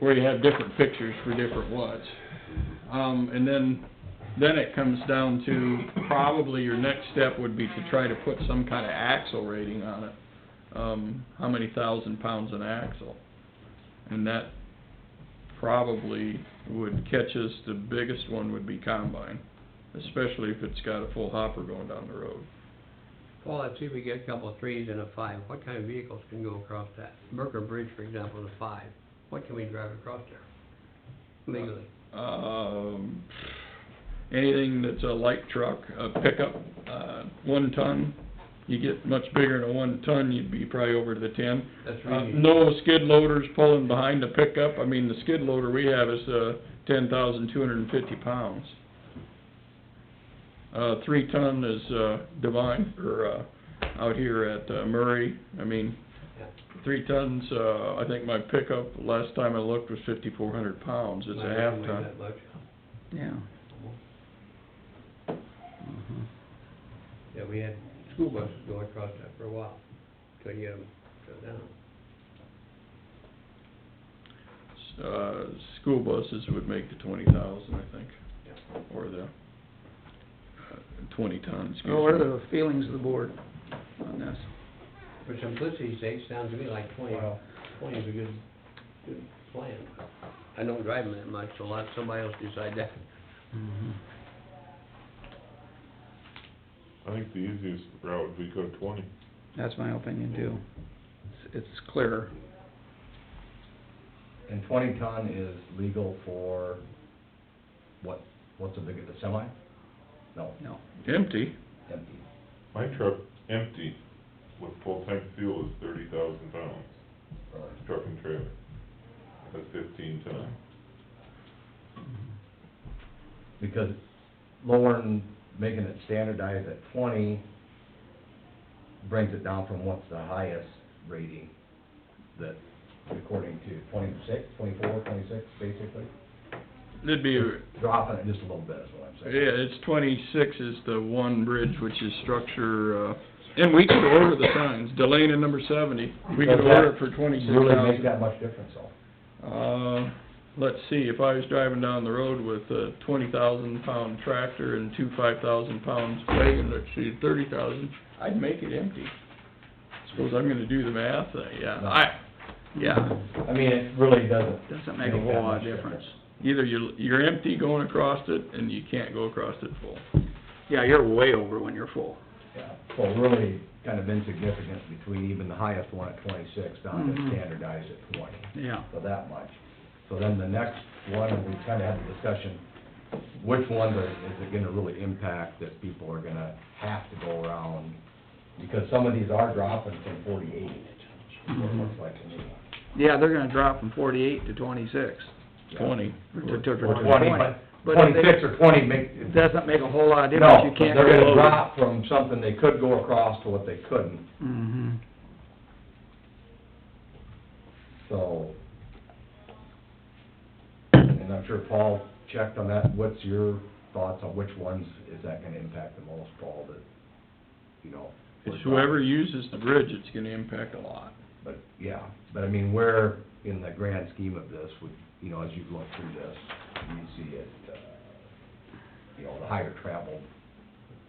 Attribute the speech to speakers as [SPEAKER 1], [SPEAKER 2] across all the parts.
[SPEAKER 1] where you have different pictures for different woods. Um, and then, then it comes down to, probably your next step would be to try to put some kind of axle rating on it. Um, how many thousand pounds an axle? And that probably would catch us, the biggest one would be combine, especially if it's got a full hopper going down the road.
[SPEAKER 2] Well, let's see if we get a couple of threes and a five, what kind of vehicles can go across that? Merker Bridge, for example, is a five, what can we drive across there legally?
[SPEAKER 1] um, anything that's a light truck, a pickup, uh, one ton, you get much bigger than a one ton, you'd be probably over to the ten.
[SPEAKER 2] That's
[SPEAKER 1] Uh,
[SPEAKER 2] really.
[SPEAKER 1] no skid loaders pulling behind the pickup, I mean, the skid loader we have is, uh, ten thousand two hundred and fifty pounds. Uh, three ton is, uh, Divine, or, uh, out here at uh, Murray, I mean,
[SPEAKER 2] Yeah.
[SPEAKER 1] three tons, uh, I think my pickup, last time I looked, was fifty-four hundred pounds, it's a
[SPEAKER 2] Might
[SPEAKER 1] half
[SPEAKER 2] not weigh
[SPEAKER 1] ton.
[SPEAKER 2] that much.
[SPEAKER 3] Yeah.
[SPEAKER 2] Yeah, we had school buses going across that for a while, till you, um, shut down.
[SPEAKER 1] uh, school buses would make the twenty thousand, I think, or the uh, twenty ton, excuse
[SPEAKER 4] Oh,
[SPEAKER 3] Well, What are
[SPEAKER 1] me.
[SPEAKER 3] the feelings of the board on this?
[SPEAKER 2] For simplicity's sake, sounds to me like twenty, twenty is a good, good plan. I don't drive them that much, so let somebody else decide that.
[SPEAKER 5] I think the easiest route would be go to twenty.
[SPEAKER 3] That's my opinion too. It's- It's clearer.
[SPEAKER 4] And twenty ton is legal for, what, what's the big, a semi? No,
[SPEAKER 3] No.
[SPEAKER 1] Empty,
[SPEAKER 4] empty.
[SPEAKER 5] My truck, empty, with full-tank fuel is thirty thousand pounds,
[SPEAKER 4] really.
[SPEAKER 5] truck and trailer. That's fifteen ton.
[SPEAKER 4] Because lowering, making it standardized at twenty brings it down from what's the highest rating that, according to twenty-six, twenty-four, twenty-six, basically?
[SPEAKER 1] it'd be, yeah,
[SPEAKER 4] Dropping it just a little bit is what I'm saying.
[SPEAKER 1] it's twenty-six is the one bridge, which is structure, uh, and we could order the signs, Delana number seventy, we could
[SPEAKER 4] Does that
[SPEAKER 1] order it for twenty-six
[SPEAKER 4] Really make
[SPEAKER 1] thousand.
[SPEAKER 4] that much difference though.
[SPEAKER 1] Uh, let's see, if I was driving down the road with a twenty thousand pound tractor and two five thousand pounds wagon, let's see, thirty thousand, I'd make it empty. Suppose I'm gonna do the math, uh, yeah, I, yeah,
[SPEAKER 4] I mean, it really doesn't.
[SPEAKER 3] Doesn't make a whole
[SPEAKER 4] that
[SPEAKER 3] lot of
[SPEAKER 4] much
[SPEAKER 3] difference.
[SPEAKER 1] either you're, you're empty going across it, and you can't go across it full.
[SPEAKER 3] Yeah, you're way over when you're full.
[SPEAKER 4] Yeah, so really kind of insignificant between even the highest one at twenty-six down to
[SPEAKER 3] Mhm.
[SPEAKER 4] standardized at twenty,
[SPEAKER 3] Yeah.
[SPEAKER 4] so that much. So then the next one, we kind of had a discussion, which ones are, is it gonna really impact that people are gonna have to go around? Because some of these are dropping from forty-eight, or
[SPEAKER 3] Mhm.
[SPEAKER 4] looks like to me.
[SPEAKER 3] Yeah, they're gonna drop from forty-eight to twenty-six.
[SPEAKER 4] Yeah.
[SPEAKER 1] Twenty.
[SPEAKER 3] or to- to-
[SPEAKER 4] Or
[SPEAKER 3] to
[SPEAKER 4] twenty, but
[SPEAKER 3] But if
[SPEAKER 4] twenty-six or twenty make,
[SPEAKER 3] they- it doesn't make a whole lot of difference.
[SPEAKER 4] no,
[SPEAKER 3] You
[SPEAKER 4] but
[SPEAKER 3] can't
[SPEAKER 4] they're
[SPEAKER 3] go
[SPEAKER 4] gonna
[SPEAKER 3] over.
[SPEAKER 4] drop from something they could go across to what they couldn't.
[SPEAKER 3] Mm-hmm.
[SPEAKER 4] So, and I'm sure Paul checked on that, what's your thoughts on which ones is that gonna impact the most, Paul, that, you know?
[SPEAKER 1] It's whoever uses the bridge, it's gonna impact a lot.
[SPEAKER 4] But, yeah, but I mean, where in the grand scheme of this would, you know, as you look through this, you see it, uh, you know, the higher traveled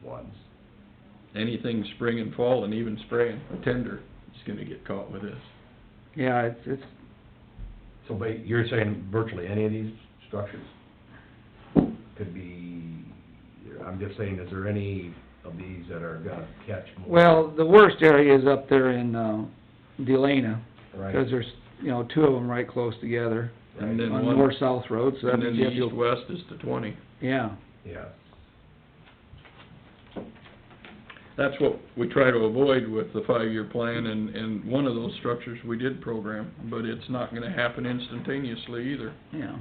[SPEAKER 4] ones.
[SPEAKER 1] Anything spring and fall, and even spraying a tender, is gonna get caught with this.
[SPEAKER 3] Yeah, it's, it's,
[SPEAKER 4] So, but you're saying virtually any of these structures could be, I'm just saying, is there any of these that are gonna catch more?
[SPEAKER 3] well, the worst area is up there in, uh, Delana,
[SPEAKER 4] Right.
[SPEAKER 3] because there's, you know, two of them right close together
[SPEAKER 1] And
[SPEAKER 3] on
[SPEAKER 1] then
[SPEAKER 3] the
[SPEAKER 1] one,
[SPEAKER 3] north-south road, so that
[SPEAKER 1] and then
[SPEAKER 3] means
[SPEAKER 1] the
[SPEAKER 3] you have to,
[SPEAKER 1] east-west is the twenty.
[SPEAKER 3] yeah.
[SPEAKER 4] Yeah,
[SPEAKER 1] That's what we try to avoid with the five-year plan, and, and one of those structures we did program, but it's not gonna happen instantaneously either.
[SPEAKER 3] Yeah.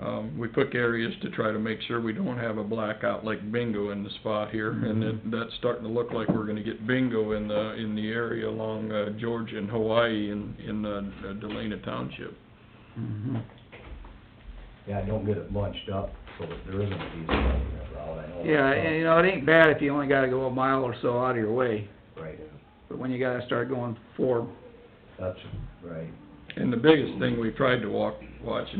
[SPEAKER 1] Um, we pick areas to try to make sure we don't have a blackout like bingo in the spot here, and it, that's starting to look like we're gonna get bingo in the, in the area along, uh, Georgia and Hawaii in, in, uh, Delana Township.
[SPEAKER 3] Mhm.
[SPEAKER 4] yeah, don't get it bunched up so that there isn't a diesel that route, I know. that's
[SPEAKER 3] Yeah, and you know, it ain't bad if you only gotta go a mile or so out of your way,
[SPEAKER 4] tough, Right,
[SPEAKER 3] but when you gotta start going four,
[SPEAKER 4] that's right.
[SPEAKER 1] And the biggest thing we've tried to walk, watch